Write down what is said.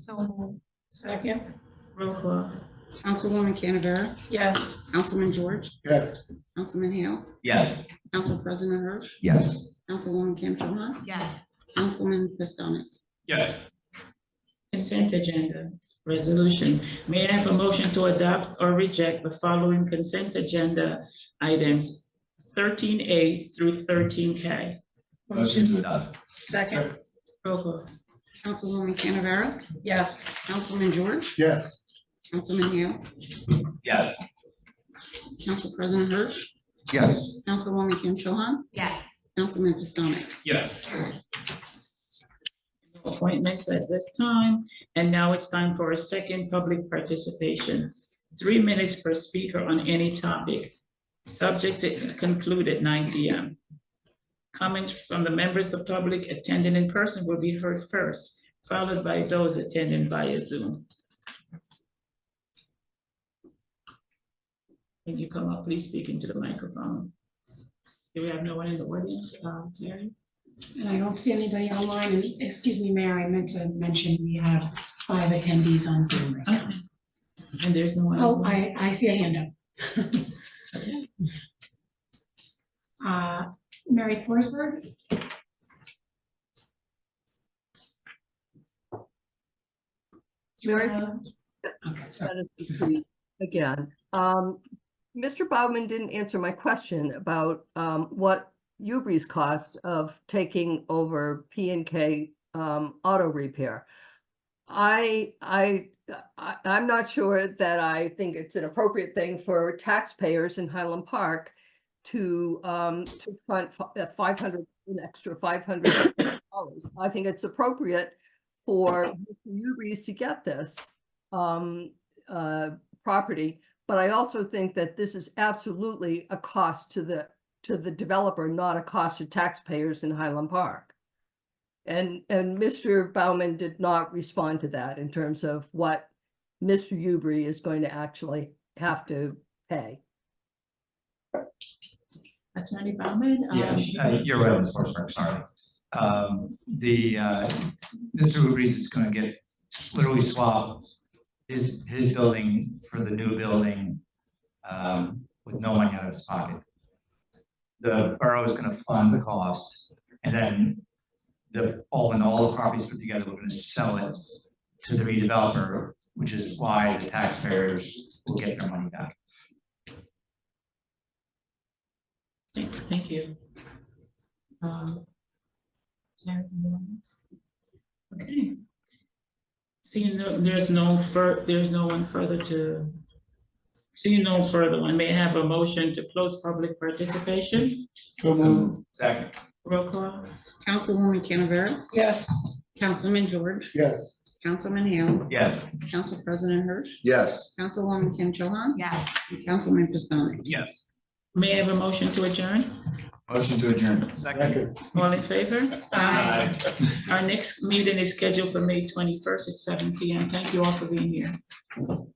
So moved. Second, Roll call. Councilwoman Canavera? yes. Councilman George? Yes. Councilman Hale? yes, Council President Hirsch? Yes. Councilwoman Kim Cho Han? Yes. Councilman Pistonik? yes, Consent agenda, resolution. May I have a motion to adopt or reject the following consent agenda items thirteen A through thirteen K? Motion, uh, second, Roll call. Councilwoman Canavera? yes. Councilman George? Yes. Councilman Hale? yes, Council President Hirsch? Yes. Councilwoman Kim Cho Han? Yes. Councilman Pistonik? yes. appointments at this time. And now it's time for a second public participation. Three minutes per speaker on any topic, subject to conclude at nine P M. Comments from the members of public attending in person will be heard first, followed by those attending via Zoom. Can you come up, please speak into the microphone? Do we have no one in the audience, uh, Terry? And I don't see anybody online, and excuse me, Mayor, I meant to mention we have five attendees on Zoom right now. And there's no one. Oh, I, I see a hand up. Uh, Mary Forsberg? Mary Uh, Okay, sorry. That is complete Again, um, Mr. Bowman didn't answer my question about, um, what Ubri's cost of taking over P and K, um, auto repair. I, I, I, I'm not sure that I think it's an appropriate thing for taxpayers in Highland Park to, um, to fund five hundred, an extra five hundred dollars. I think it's appropriate for Ubri's to get this, um, uh, property. But I also think that this is absolutely a cost to the, to the developer, not a cost to taxpayers in Highland Park. And, and Mr. Bauman did not respond to that in terms of what Mr. Ubri is going to actually have to pay. Attorney Bowman? um, Yes, uh, you're right, Ms. Forsberg, sorry. Um, The, uh, Mr. Ubrees is going to get literally swap his, his building for the new building um, with no money out of his pocket. The borough is going to fund the cost, and then the, all in all, the properties put together, we're going to sell it to the redeveloper, which is why the taxpayers will get their money back. Thank thank you. Um, Terry, anyone else? Okay. Seeing no, there's no fur, there's no one further to, seeing no further one, may I have a motion to close public participation? So moved. Second. Roll call? Councilwoman Canavera? Yes. Councilman George? Yes. Councilman Hale? Yes. Council President Hirsch? Yes. Councilwoman Kim Cho Han? Yes. and Councilman Pistonik? Yes. May I have a motion to adjourn? Motion to adjourn. All in favor? Aye. Our next meeting is scheduled for May twenty-first at seven P M. Thank you all for being here.